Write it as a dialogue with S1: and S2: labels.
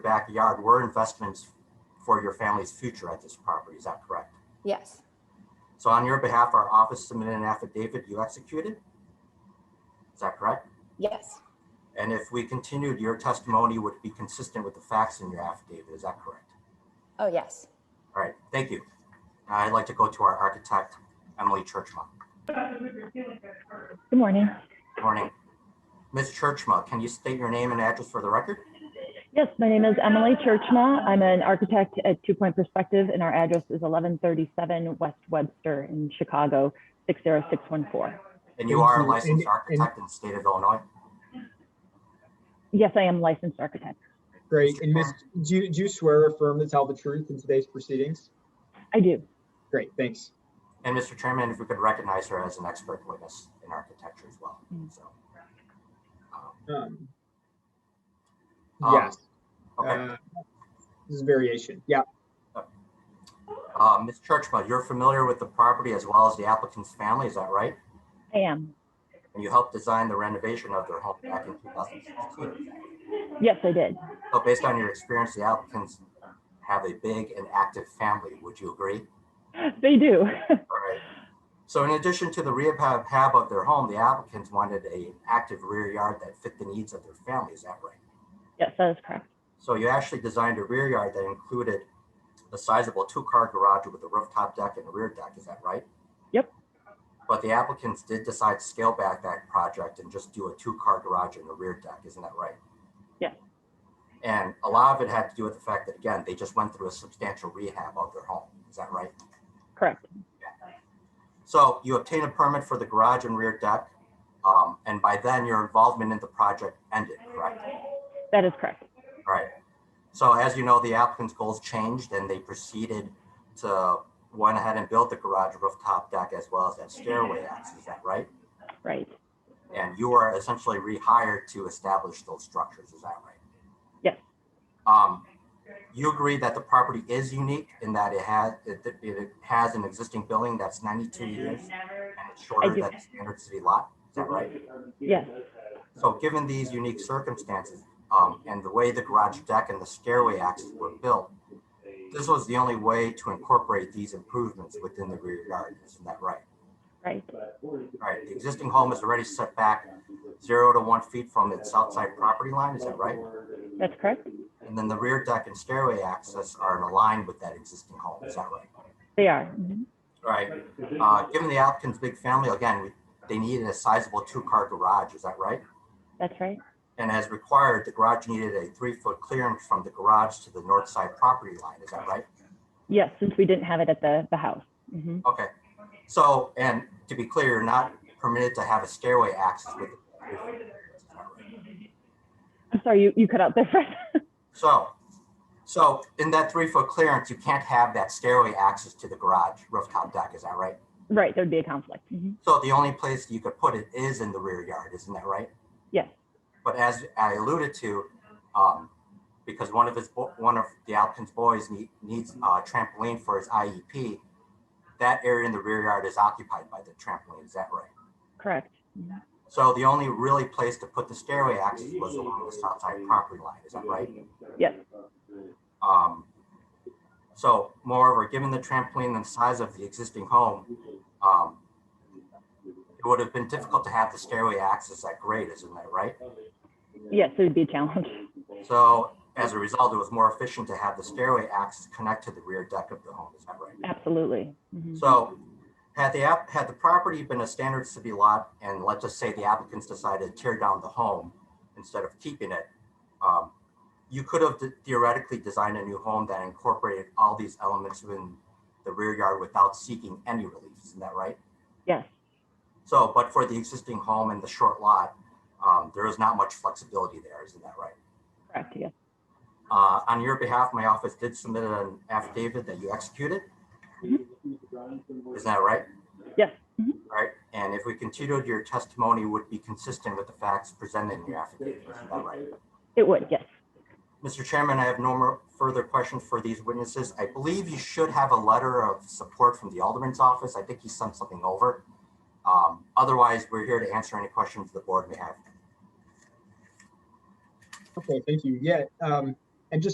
S1: backyard were investments for your family's future at this property. Is that correct?
S2: Yes,
S1: So on your behalf, our office submitted an affidavit you executed? Is that correct?
S2: yes,
S1: And if we continued, your testimony would be consistent with the facts in your affidavit. Is that correct?
S2: oh, yes.
S1: All right, thank you. Now I'd like to go to our architect, Emily Churchma.
S3: Good morning.
S1: Morning. Ms. Churchma, can you state your name and address for the record?
S3: Yes, my name is Emily Churchma. I'm an architect at Two Point Perspective, and our address is 1137 West Webster in Chicago, 60614.
S1: And you are a
S4: Thank you.
S1: licensed
S4: And- and-
S1: architect in the state of Illinois?
S3: Yes, I am a licensed architect.
S4: Great. And Miss, do you, do you swear or affirm to tell the truth in today's proceedings?
S3: I do.
S4: Great, thanks.
S1: And Mr. Chairman, if we could recognize her as an expert witness in architecture as well,
S3: Mm.
S1: so. um,
S4: Um,
S1: Um,
S4: Yes,
S1: Okay,
S4: uh, this is variation. Yeah,
S1: Uh, Ms. Churchma, you're familiar with the property as well as the applicant's family, is that right?
S3: I am.
S1: And you helped design the renovation of their home back in 2016.
S3: Yes, I did.
S1: So based on your experience, the applicants have a big and active family, would you agree?
S3: They do.
S1: Alright. So in addition to the rehab hab of their home, the applicants wanted a active rear yard that fit the needs of their family, is that right?
S3: yes, that is correct.
S1: So you actually designed a rear yard that included a sizable two-car garage with a rooftop deck and a rear deck, is that right?
S3: Yep.
S1: But the applicants did decide to scale back that project and just do a two-car garage and a rear deck, isn't that right?
S3: Yes.
S1: And a lot of it had to do with the fact that, again, they just went through a substantial rehab of their home, is that right?
S3: Correct.
S1: So you obtain a permit for the garage and rear deck, um, and by then your involvement in the project ended, correct?
S3: That is correct.
S1: All right. So as you know, the applicant's goals changed and they proceeded to went ahead and built the garage rooftop deck as well as that stairway
S3: Mm-hmm.
S1: access, is that right?
S3: Right.
S1: And you were essentially rehired to establish those structures, is that right?
S3: Yes.
S1: Um, you agree that the property is unique in that it has, it, it has an existing building that's ninety-two years and it's shorter
S3: Mm-hmm. do.
S1: than the standard city lot, is that right?
S3: Yes.
S1: So given these unique circumstances, um, and the way the garage deck and the stairway axes were built, this was the only way to incorporate these improvements within the rear yard, isn't that right?
S3: Right.
S1: Right, the existing home is already set back zero to one feet from its outside property line, is that right?
S3: That's correct.
S1: And then the rear deck and stairway access are in line with that existing home, is that right?
S3: They are. Mhm.
S1: Right, uh, given the applicant's big family, again, we- they needed a sizable two-car garage, is that right?
S3: That's right.
S1: And as required, the garage needed a three-foot clearance from the garage to the north side property line, is that right?
S3: Yes, since we didn't have it at the, the house. hmm
S1: Okay, so, and to be clear, you're not permitted to have a stairway access with.
S3: I'm sorry, you, you cut out there for
S1: So, so in that three-foot clearance, you can't have that stairway access to the garage rooftop deck, is that right?
S3: Right. There'd be a conflict. Mhm.
S1: So the only place you could put it is in the rear yard, isn't that right?
S3: Yes.
S1: But as I alluded to, um, because one of his, bo- one of the applicant's boys need, needs a trampoline for his IEP, that area in the rear yard is occupied by the trampoline, is that right?
S3: Correct. Mhm.
S1: So the only really place to put the stairway access was along the south side property line, is that right?
S3: Yes.
S1: Um, so moreover, given the trampoline and size of the existing home, um, it would have been difficult to have the stairway access at grade, isn't that right?
S3: Yes, it would be a challenge.
S1: So as a result, it was more efficient to have the stairway access connect to the rear deck of the home, is that right?
S3: Absolutely. Mhm.
S1: So had the app, had the property been a standard city lot and let's just say the applicants decided to tear down the home instead of keeping it, um, you could have theoretically designed a new home that incorporated all these elements within the rear yard without seeking any relief, isn't that right?
S3: Yes.
S1: So, but for the existing home and the short lot, um, there is not much flexibility there, isn't that right?
S3: Correct. Yes.
S1: Uh, on your behalf, my office did submit an affidavit that you executed. Is that right? Mm-hmm.
S3: Yes.
S1: All right, and if we continued, your testimony would be consistent with the facts presented in your affidavit. Is that right?
S3: It would. Yes.
S1: Mr. Chairman, I have no more further questions for these witnesses. I believe you should have a letter of support from the Alderman's office. I think he sent something over. Um, Otherwise, we're here to answer any questions the board may have.
S4: Okay, thank you. Yeah, um,